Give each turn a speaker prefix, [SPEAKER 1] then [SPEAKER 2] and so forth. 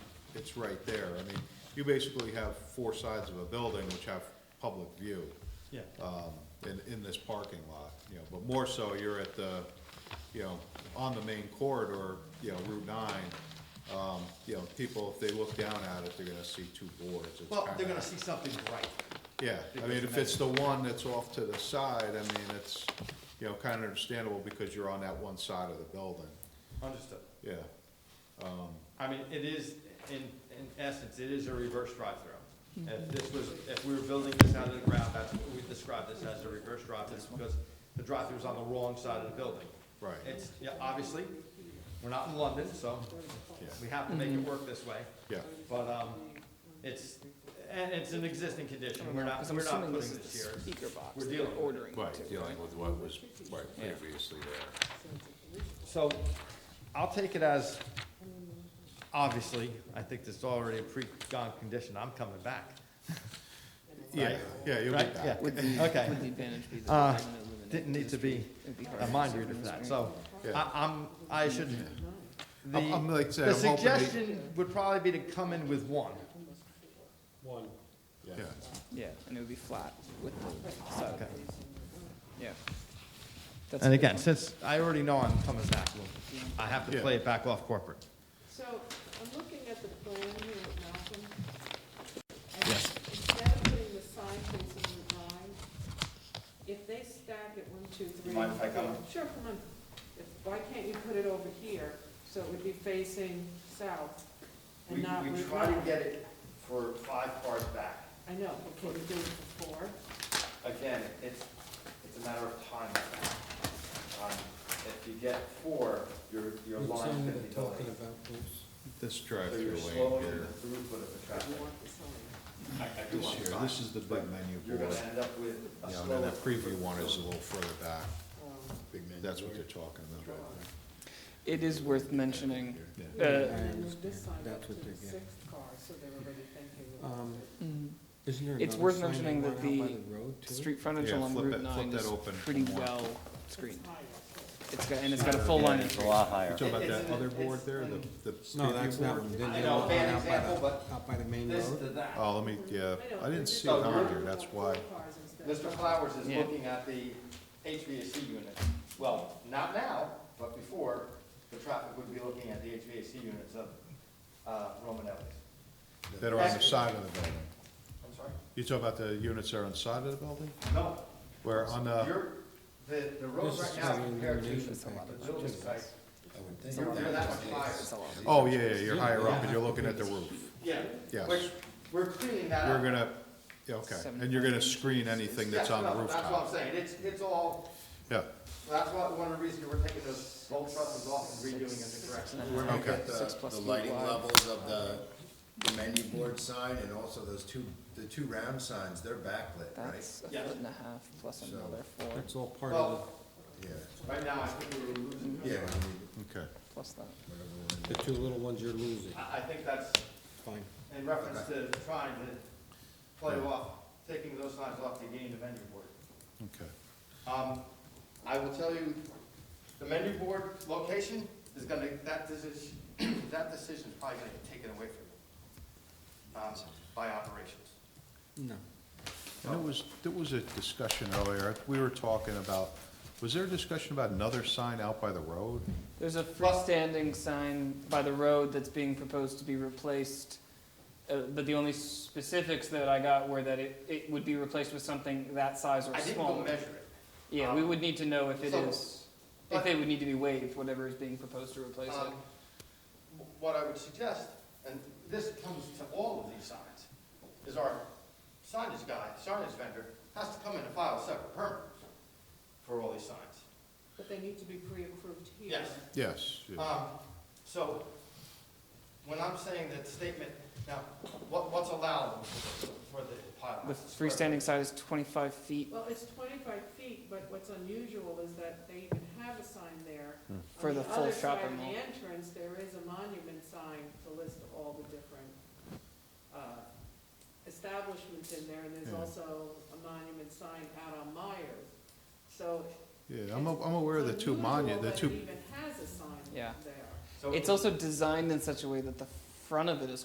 [SPEAKER 1] it's right there. I mean, you basically have four sides of a building which have public view,
[SPEAKER 2] Yeah,
[SPEAKER 1] um, in, in this parking lot, you know, but more so you're at the, you know, on the main corridor, you know, Route nine. Um, you know, people, if they look down at it, they're gonna see two boards. It's
[SPEAKER 2] well, they're
[SPEAKER 1] kinda-
[SPEAKER 2] gonna see something bright.
[SPEAKER 1] yeah, I mean, if it's the one that's off to the side, I mean, it's, you know, kind of understandable because you're on that one side of the building,
[SPEAKER 2] Understood.
[SPEAKER 1] yeah.
[SPEAKER 2] I mean, it is, in, in essence, it is a reverse
[SPEAKER 3] Mm-hmm.
[SPEAKER 2] drive-through. If this was, if we were building this out of the ground, that's what we describe this as a reverse drive-through, because the drive-through is on the wrong side of the building.
[SPEAKER 1] Right.
[SPEAKER 2] It's, yeah, obviously, we're not in London, so we have to make
[SPEAKER 3] Mm-hmm.
[SPEAKER 2] it work this way.
[SPEAKER 1] Yeah,
[SPEAKER 2] But, um, it's, and it's an existing condition, we're not,
[SPEAKER 3] Because I'm
[SPEAKER 2] we're not
[SPEAKER 3] assuming
[SPEAKER 2] putting
[SPEAKER 3] this is
[SPEAKER 2] this
[SPEAKER 3] the
[SPEAKER 2] here.
[SPEAKER 3] speaker box
[SPEAKER 2] We're
[SPEAKER 3] that they're
[SPEAKER 2] dealing with it.
[SPEAKER 3] ordering
[SPEAKER 4] Right,
[SPEAKER 3] to,
[SPEAKER 4] dealing
[SPEAKER 3] right?
[SPEAKER 4] with what was, right,
[SPEAKER 3] Yeah.
[SPEAKER 4] previously there.
[SPEAKER 2] So, I'll take it as, obviously, I think this is already a pre-gone condition, I'm coming back.
[SPEAKER 1] yeah,
[SPEAKER 2] Right.
[SPEAKER 1] yeah, you'll
[SPEAKER 2] Right,
[SPEAKER 1] get
[SPEAKER 2] yeah,
[SPEAKER 1] that.
[SPEAKER 2] okay.
[SPEAKER 3] Would the advantage be that
[SPEAKER 2] Uh,
[SPEAKER 3] they're gonna eliminate
[SPEAKER 2] Didn't need
[SPEAKER 3] this
[SPEAKER 2] to be
[SPEAKER 3] It'd be
[SPEAKER 2] a
[SPEAKER 3] hard.
[SPEAKER 2] mind reader for that, so I,
[SPEAKER 1] Yeah.
[SPEAKER 2] I'm, I shouldn't. The-
[SPEAKER 1] I'm- I'm like I said,
[SPEAKER 2] The
[SPEAKER 1] I'm hoping they-
[SPEAKER 2] suggestion would probably be to come in with one.
[SPEAKER 1] Yeah,
[SPEAKER 3] Yeah, and it would be flat with the side.
[SPEAKER 2] Okay.
[SPEAKER 3] Yeah. That's
[SPEAKER 2] And
[SPEAKER 3] a good
[SPEAKER 2] again,
[SPEAKER 3] one.
[SPEAKER 2] since I already know I'm coming back, well, I have to
[SPEAKER 1] Yeah.
[SPEAKER 2] play it back off corporate.
[SPEAKER 5] So I'm looking at the plan here at Malcolm. and
[SPEAKER 2] Yes.
[SPEAKER 5] Instead of putting the sign facing the line, if they stack it one, two, three.
[SPEAKER 2] Mind if I come?
[SPEAKER 5] four- Sure, come on. If- Why can't you put it over here, so it would be facing south and not Route nine?
[SPEAKER 2] it for five cars back.
[SPEAKER 5] I know, but can you do it for four?
[SPEAKER 2] Again, it's, it's a matter of time. Um, If you get four, your, your
[SPEAKER 6] What
[SPEAKER 2] line
[SPEAKER 6] sign are
[SPEAKER 2] could
[SPEAKER 6] they
[SPEAKER 2] be
[SPEAKER 6] talking
[SPEAKER 2] delayed.
[SPEAKER 6] about, please?
[SPEAKER 1] this
[SPEAKER 2] So
[SPEAKER 1] drive-through
[SPEAKER 2] you're
[SPEAKER 1] lane
[SPEAKER 2] slowing
[SPEAKER 1] here,
[SPEAKER 2] the throughput of the traffic.
[SPEAKER 5] You want the sign.
[SPEAKER 2] I- I do
[SPEAKER 1] this
[SPEAKER 2] want
[SPEAKER 1] here,
[SPEAKER 2] the
[SPEAKER 1] this
[SPEAKER 2] sign,
[SPEAKER 1] is the big
[SPEAKER 2] but
[SPEAKER 1] menu
[SPEAKER 2] You're
[SPEAKER 1] board.
[SPEAKER 2] gonna end up with
[SPEAKER 1] Yeah,
[SPEAKER 2] a slower.
[SPEAKER 1] and then the preview one is a little further back,
[SPEAKER 5] Um,
[SPEAKER 1] Big menu. that's what they're talking about right
[SPEAKER 3] It is worth mentioning,
[SPEAKER 2] Hmm.
[SPEAKER 1] there.
[SPEAKER 3] Uh,
[SPEAKER 5] And then move this sign up
[SPEAKER 6] That's
[SPEAKER 5] to
[SPEAKER 6] what
[SPEAKER 5] the
[SPEAKER 6] they're getting.
[SPEAKER 5] sixth car, so they're already thinking.
[SPEAKER 6] Um,
[SPEAKER 5] about it.
[SPEAKER 6] Isn't there
[SPEAKER 3] It's
[SPEAKER 6] another
[SPEAKER 3] worth
[SPEAKER 6] sign they
[SPEAKER 3] mentioning that
[SPEAKER 6] want out by
[SPEAKER 3] the
[SPEAKER 6] road, too?
[SPEAKER 3] street frontage
[SPEAKER 1] Yeah,
[SPEAKER 3] along
[SPEAKER 1] flip
[SPEAKER 3] Route
[SPEAKER 1] it- flip
[SPEAKER 3] nine
[SPEAKER 1] that
[SPEAKER 3] is
[SPEAKER 1] open for
[SPEAKER 3] pretty
[SPEAKER 1] more.
[SPEAKER 3] well
[SPEAKER 5] It's
[SPEAKER 3] screened.
[SPEAKER 5] higher, so-
[SPEAKER 3] It's got, and it's got a full line
[SPEAKER 7] It's a
[SPEAKER 3] entry.
[SPEAKER 7] lot higher.
[SPEAKER 1] You talking about
[SPEAKER 2] It- it's
[SPEAKER 1] that
[SPEAKER 2] in-
[SPEAKER 1] other board
[SPEAKER 2] it's
[SPEAKER 1] there, the,
[SPEAKER 2] in-
[SPEAKER 1] the
[SPEAKER 6] No,
[SPEAKER 1] preview
[SPEAKER 6] that's not
[SPEAKER 1] board?
[SPEAKER 6] one, didn't
[SPEAKER 2] I
[SPEAKER 6] they
[SPEAKER 2] know,
[SPEAKER 6] want
[SPEAKER 2] bad
[SPEAKER 6] one out by
[SPEAKER 2] example,
[SPEAKER 6] the,
[SPEAKER 2] but
[SPEAKER 6] out by the main
[SPEAKER 2] This to
[SPEAKER 6] road?
[SPEAKER 2] that.
[SPEAKER 1] Oh, let me, yeah, I didn't see it
[SPEAKER 2] So
[SPEAKER 1] on
[SPEAKER 2] we're-
[SPEAKER 1] here, that's why,
[SPEAKER 2] Mr. Flowers is
[SPEAKER 3] Yeah.
[SPEAKER 2] looking at the HVAC unit. Well, not now, but before, the traffic would be looking at the HVAC units of uh, Romanelli's.
[SPEAKER 1] that are on the side of the building.
[SPEAKER 2] I'm sorry?
[SPEAKER 1] You talking about the units that are on the side of the building?
[SPEAKER 2] No,
[SPEAKER 1] Where on uh, the,
[SPEAKER 2] you're, the, the road
[SPEAKER 6] This
[SPEAKER 2] right
[SPEAKER 6] is
[SPEAKER 2] now
[SPEAKER 6] the
[SPEAKER 2] compared to
[SPEAKER 6] illumination
[SPEAKER 2] the
[SPEAKER 6] package,
[SPEAKER 2] building
[SPEAKER 6] too.
[SPEAKER 2] site,
[SPEAKER 3] It's a
[SPEAKER 2] you're
[SPEAKER 3] lot.
[SPEAKER 2] you're that much higher.
[SPEAKER 3] It's a lot.
[SPEAKER 1] oh, yeah, yeah, you're higher up and you're looking at the roof.
[SPEAKER 2] Yeah.
[SPEAKER 1] Yes.
[SPEAKER 2] Which, we're cleaning that
[SPEAKER 1] You're
[SPEAKER 2] up.
[SPEAKER 1] gonna, yeah, okay, and you're gonna screen anything that's
[SPEAKER 2] Yeah,
[SPEAKER 1] on the
[SPEAKER 2] no, That's what I'm
[SPEAKER 1] rooftop.
[SPEAKER 2] saying, it's, it's all,
[SPEAKER 1] Yeah,
[SPEAKER 2] that's what, one of the reasons we're taking those old trusses off and redoing it in correct.
[SPEAKER 3] And a half.
[SPEAKER 1] Okay.
[SPEAKER 3] Six
[SPEAKER 8] The
[SPEAKER 3] plus
[SPEAKER 8] the
[SPEAKER 3] feet
[SPEAKER 8] lighting
[SPEAKER 3] wide.
[SPEAKER 8] levels of the the menu board sign and also those two, the two round signs, they're backlit, right?
[SPEAKER 3] That's a
[SPEAKER 2] Yeah.
[SPEAKER 3] foot and a half plus
[SPEAKER 8] So-
[SPEAKER 3] another four,
[SPEAKER 6] That's all part of
[SPEAKER 2] Well,
[SPEAKER 8] Yeah,
[SPEAKER 2] right now, I think we're losing.
[SPEAKER 8] yeah,
[SPEAKER 2] ground.
[SPEAKER 8] I mean,
[SPEAKER 1] okay,
[SPEAKER 3] plus that.
[SPEAKER 8] whatever one.
[SPEAKER 6] the, the two little ones you're losing,
[SPEAKER 2] I, I think that's
[SPEAKER 6] fine.
[SPEAKER 2] in reference to trying to play off, taking those signs off to gain the venue board.
[SPEAKER 1] okay.
[SPEAKER 2] Um, I will tell you, the menu board location is gonna, that decision, that decision's probably gonna get taken away from you, um, by operations.
[SPEAKER 6] No.
[SPEAKER 1] And it was, there was a discussion earlier, we were talking about, was there a discussion about another sign out by the road?
[SPEAKER 3] There's a
[SPEAKER 2] Plus-
[SPEAKER 3] freestanding sign by the road that's being proposed to be replaced, uh, but the only specifics that I got were that it, it would be replaced with something that size or
[SPEAKER 2] I didn't go
[SPEAKER 3] smaller.
[SPEAKER 2] measure it.
[SPEAKER 3] Yeah, we would need to know if it
[SPEAKER 2] So-
[SPEAKER 3] is, if
[SPEAKER 2] but-
[SPEAKER 3] they would need to be waived, whatever is being proposed to replace
[SPEAKER 2] Um,
[SPEAKER 3] it.
[SPEAKER 2] What I would suggest, and this comes to all of these signs, is our signage guy, signage vendor, has to come in and file a separate permit for all these signs.
[SPEAKER 5] But they need to be pre-approved here.
[SPEAKER 2] Yes.
[SPEAKER 1] Yes, yeah.
[SPEAKER 2] Um, So, when I'm saying that statement, now, what, what's allowed for the pilot?
[SPEAKER 3] The freestanding sign is twenty-five feet
[SPEAKER 5] Well, it's twenty-five feet, but what's unusual is that they even have a sign there.
[SPEAKER 1] Hmm.
[SPEAKER 5] On
[SPEAKER 3] For the full
[SPEAKER 5] other
[SPEAKER 3] shopper
[SPEAKER 5] side of
[SPEAKER 3] mall.
[SPEAKER 5] the entrance, there is a monument sign to list all the different uh, establishments in there, and there's
[SPEAKER 1] Yeah.
[SPEAKER 5] also a monument sign out on Myers. So
[SPEAKER 1] Yeah, I'm, a- I'm aware of the
[SPEAKER 5] it's
[SPEAKER 1] two monu,
[SPEAKER 5] unusual
[SPEAKER 1] the
[SPEAKER 5] that it
[SPEAKER 1] two
[SPEAKER 5] even has a sign
[SPEAKER 3] Yeah.
[SPEAKER 5] there.
[SPEAKER 2] So-
[SPEAKER 3] It's also designed in such a way that the front of it is